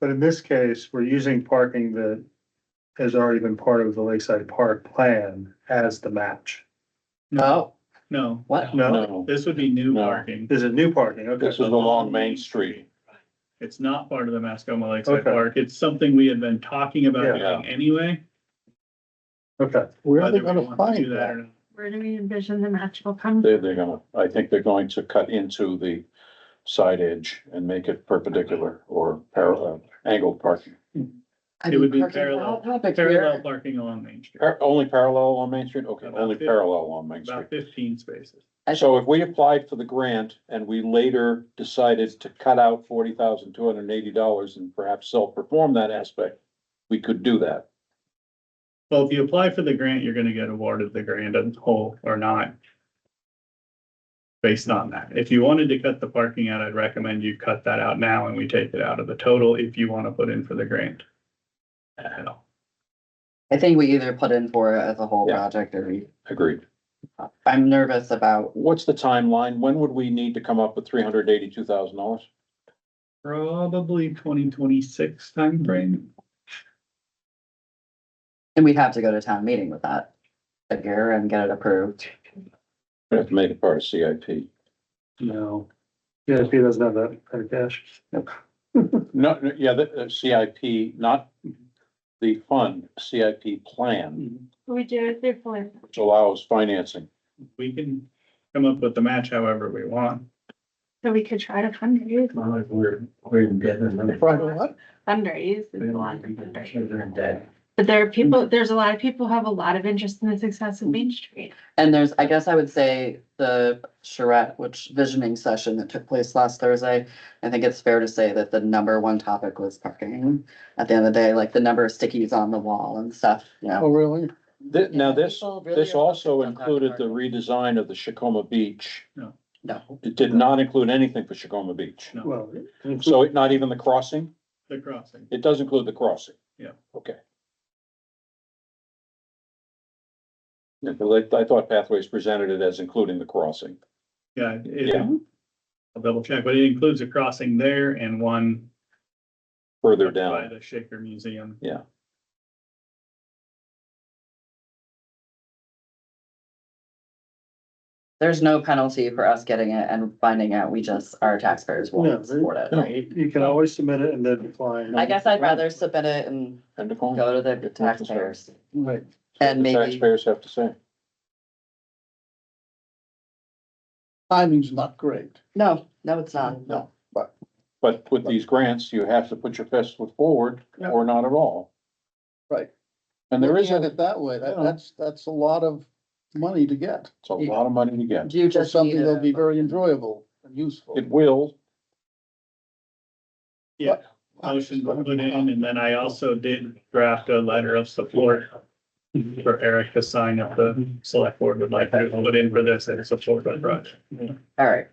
But in this case, we're using parking that has already been part of the Lakeside Park plan as the match. No, No, what? No, No, this would be new No. parking. this is new parking, okay. this is along Main Street. It's not part of the Mascoma Lakeside Okay. Park. It's something we had been talking about Yeah. doing anyway. Okay, Where are whether they we gonna want to do find that or that? not. Where do we envision the match will come? They're, they're gonna, I think they're going to cut into the side edge and make it perpendicular or parallel, angled parking. I It mean, would be parking- parallel- hot topic here. Parallel parking along Main Street, Par- Only parallel on Main Street? Okay, About only fifty. parallel on Main Street. about fifteen spaces. So if we applied for the grant and we later decided to cut out forty thousand two hundred and eighty dollars and perhaps self-perform that aspect, we could do that. Well, if you apply for the grant, you're gonna get awarded the grant in whole or not. Based on that. If you wanted to cut the parking out, I'd recommend you cut that out now and we take it out of the total if you wanna put in for the grant. Uh-huh. At all. I think we either put in for it as a whole Yeah. project or we, Agreed. I'm nervous about, What's the timeline? When would we need to come up with three hundred eighty-two thousand dollars? Probably twenty twenty-six timeframe. and we'd have to go to town meeting with that figure and get it approved. We have to make it part of CIP. no. GSP doesn't have that kind of cash. No, no, yeah, the, uh, the CIP, not the fund, CIP plan, We do it through plan. which allows financing. We can come up with the match however we want. So we could try to fundraise. We're, we're in debt. Right, what? Fundraise is a lot of fundraising. We're in debt. But there are people, there's a lot of people who have a lot of interest in the success of Main Street. And there's, I guess I would say the charrette, which visioning session that took place last Thursday. I think it's fair to say that the number one topic was parking. At the end of the day, like the number of stickies on the wall and stuff, you know. really? Thi- now Yeah, this, people really this are also focused on that included the part. redesign of the Shakoma Beach. No, It did not include anything for Shakoma Beach. Well, So it- not even the crossing? The crossing. It does include the crossing? Yeah. Okay. Yeah, but I, I thought Pathways presented it as including the crossing. Yeah, it, Yeah. I'll double check, but it includes a crossing there and one Further by down, the Shaker Museum. there's no penalty for us getting it and finding out. We just, our taxpayers No, won't support it, no. right? you can always submit it and then decline. I guess I'd rather submit it and end of line. go to the taxpayers Right. and The maybe. Taxpayers have to say. Timing's not great. No, no, it's not. No. But with these grants, you have to put your best foot forward or not at all. Right. And there is, Looking a- at it that way, that, Yeah. that's, that's a lot of money to get. it's a lot of money to get. Do you It's just something need that'll be a, very enjoyable and useful. It will, Motion to put in, and then I also did draft a letter of support for Eric to sign if the select board would like to put in for this and support the project. all right.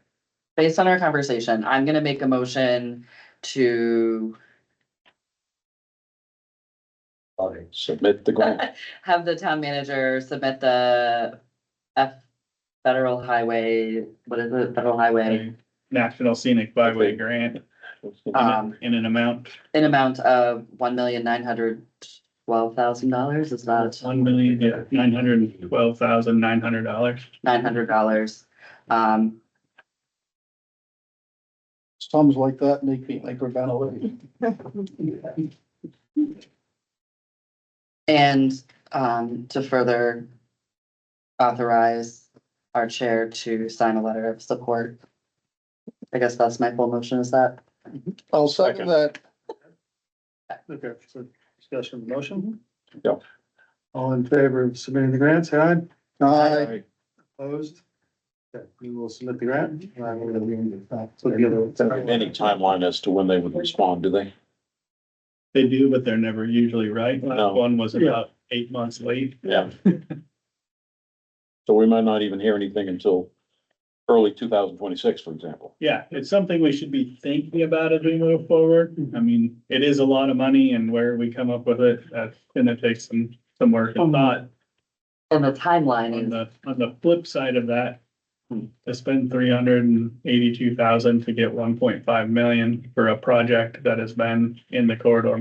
Based on our conversation, I'm gonna make a motion to submit the grant. have the town manager submit the F federal highway, what is it, federal highway? A National Scenic Byway Grant in Um, a- in an amount, an amount of one million nine hundred twelve thousand dollars, it's not one million, nine hundred and twelve thousand, nine hundred dollars. nine hundred dollars. Um, Sums like that make me hyperventilate. and, um, to further authorize our chair to sign a letter of support. I guess that's my full motion, is that? I'll Second. second that. Okay, so discussion of the motion? Mm-hmm. Yep. All in favor of submitting the grant, say aye. Aye. Opposed? Okay, we will submit the grant. Mm-hmm. and I'm gonna leave it back to the other- Any timeline as to when they would respond, do they? They do, but they're never usually right. No. Last one was Yeah. about eight months late. Yeah. So we might not even hear anything until early two thousand twenty-six, for example. Yeah, it's something we should be thinking about as we move forward. I mean, it is a lot of money and where we come up with it, that's gonna take some, some work and thought. And the On timeline is, the, on the flip side of that, Hmm. to spend three hundred and eighty-two thousand to get one point five million for a project that has been in the corridor